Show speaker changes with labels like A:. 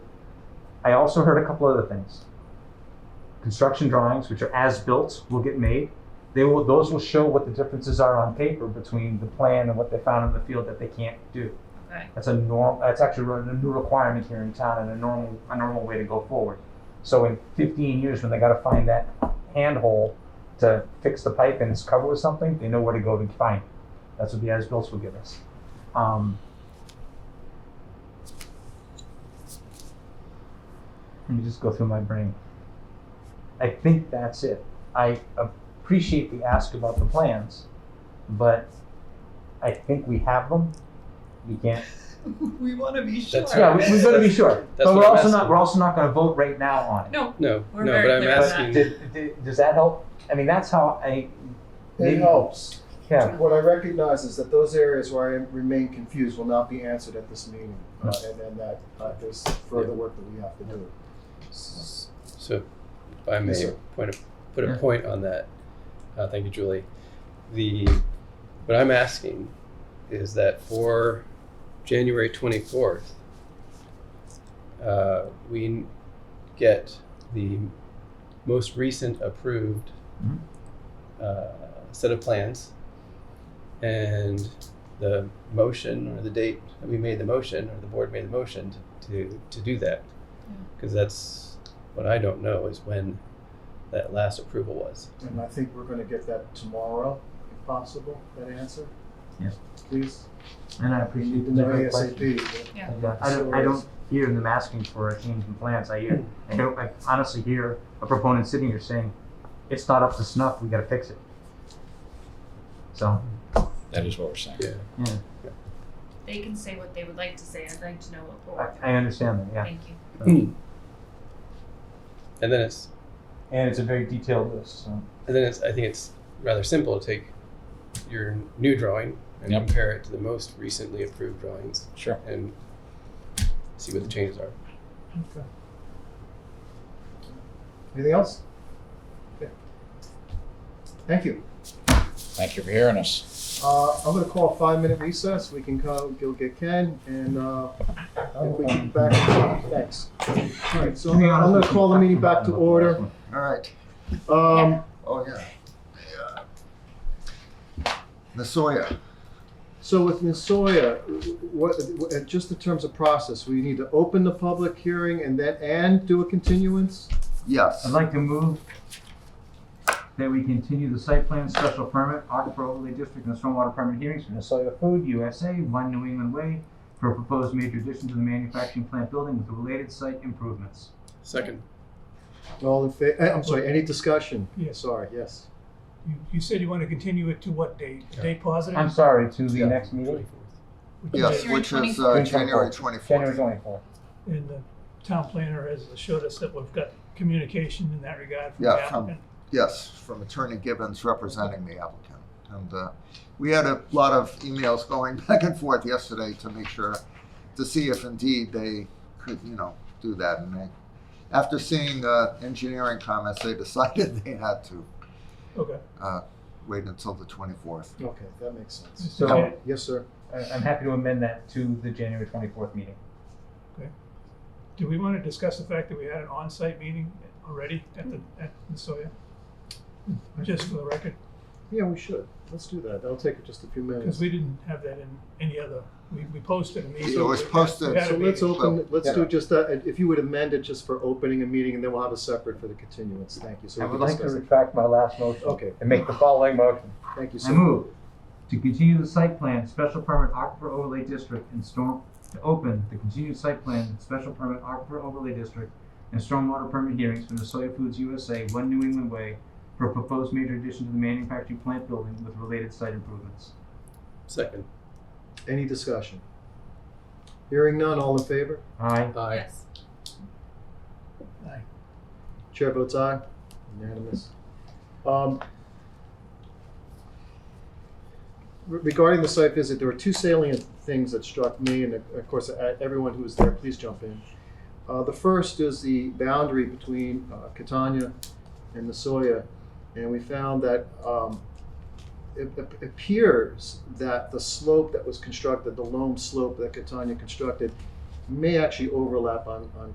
A: I also heard a couple other things. Construction drawings, which are as built, will get made. They will, those will show what the differences are on paper between the plan and what they found in the field that they can't do.
B: Okay.
A: That's a norm, that's actually re- a new requirement here in town and a normal, a normal way to go forward. So in fifteen years, when they gotta find that handhole to fix the pipe and it's covered with something, they know where to go to find it. That's what the as-bills will give us. Um, Let me just go through my brain. I think that's it. I appreciate the ask about the plans, but I think we have them. We can't.
B: We want to be sure.
C: That's
A: Yeah, we, we've got to be sure.
C: That's
A: but
C: what
A: we're
C: I'm
A: also not.
C: asking.
A: We're also not going to vote right now on it.
B: No,
C: No,
B: We're
C: no,
B: very
C: but I'm
B: clear on that.
C: asking.
A: Did, did, does that help? I mean, that's how I.
D: It helps.
A: Yeah.
D: What I recognize is that those areas where I remain confused will not be answered at this meeting, uh, and and that uh, there's further work that we have to do.
C: S- So, if I
D: Yes,
C: may
D: sir.
C: point a, put a
A: Yeah.
C: point on that. Uh, thank you, Julie. The what I'm asking is that for January 24th, uh, we n- get the most recent approved
A: Mhm.
C: uh, set of plans and the motion or the date that we made the motion or the board made the motion to, to do that. Because that's what I don't know is when that last approval was.
D: And I think we're gonna get that tomorrow, if possible, that answer.
A: Yeah.
D: Please,
A: And I
D: we
A: appreciate
D: need
A: the
D: to know
A: different questions.
D: ASAP.
A: Yeah, I don't, I don't hear them asking for a change in plans. I hear, I don't, I honestly hear a proponent sitting here saying, it's not up to snuff, we gotta fix it. So,
E: That is what we're saying.
C: Yeah.
B: They can say what they would like to say. I'd like to know what
A: I,
B: board.
A: I understand that, yeah.
B: Thank you.
C: Um, And then it's
A: And it's a very detailed list, so.
C: and then it's I think it's rather simple to take your new drawing and
E: Yep.
C: compare it to the most recently approved drawings
E: Sure.
C: and see what the changes are.
D: Anything else? Okay. Thank you.
E: Thank you for hearing us.
D: Uh, I'm gonna call a five-minute recess. We can go, go get Ken, and, uh, if we can back, thanks. All right, so I'm gonna- I'm gonna call the meeting back to order.
F: All right,
D: Um,
F: oh, yeah. Yeah. Ms. Sawyer,
D: so with Ms. Sawyer, what, what- uh, just in terms of process, we need to open the public hearing and then, and do a continuance?
F: yes.
A: I'd like to move that we continue the site plan, special permit, aquifer overlay district and stormwater permit hearings for Nasoya Food USA, One New England Way, for a proposed major addition to the manufacturing plant building with related site improvements.
C: Second.
D: All in fa, eh, I'm sorry, any discussion?
G: Yes.
D: Sorry, yes.
G: You, you said you want to continue it to what date? The Date positive?
A: I'm sorry, to the
D: Yeah.
A: next meeting?
C: 24th.
G: Which is
F: Yes,
G: it?
B: January
F: which is uh,
A: 24th.
F: January twenty-fourth.
A: January twenty-fourth.
G: And the town planner has assured us that we've got communication in that regard from
F: Yeah,
G: the
F: from-
G: applicant.
F: Yes, from Attorney Gibbons representing the applicant. And uh, we had a lot of emails going back and forth yesterday to make sure, to see if indeed they could, you know, do that. And they, after seeing uh, engineering comments, they decided they had to
G: Okay,
F: wait until the twenty-fourth.
D: Okay, that makes sense.
A: So-
G: Okay.
D: Yes, sir.
A: I- I'm happy to amend that to the January 24th meeting.
G: do we want to discuss the fact that we had an on-site meeting already at the, at Nasoya? Just for the record,
D: Yeah, we should. Let's do that. That'll take just a few minutes.
G: because we didn't have that in any other, we, we posted a meeting.
F: It was posted.
G: We had
D: So
G: a
D: let's
G: meeting.
D: open, let's
F: yeah.
D: do just, uh, if you would amend it just for opening a meeting, and then we'll have a separate for the continuance. Thank you. So
A: I
D: we
A: would
D: can
A: like to
D: discuss it.
A: retract my last motion.
D: Okay.
A: And make the following motion.
D: Thank you,
A: I
D: sir.
A: move to continue the site plan, special permit aquifer overlay district and storm, to open the continued site plan, special permit aquifer overlay district and stormwater permit hearings for the Soya Foods USA, One New England Way, for a proposed major addition to the manufacturing plant building with related site improvements.
C: Second.
D: Any discussion? Hearing none, all in favor?
A: Aye.
C: Aye.
B: Yes.
D: Chair votes aye. Unanimous. Um, re- Regarding the site visit, there were two salient things that struck me, and of course, uh, everyone who was there, please jump in. Uh, The first is the boundary between uh, Catania and Nasoya, and we found that um, it it appears that the slope that was constructed, the loam slope that Catania constructed, may actually overlap on on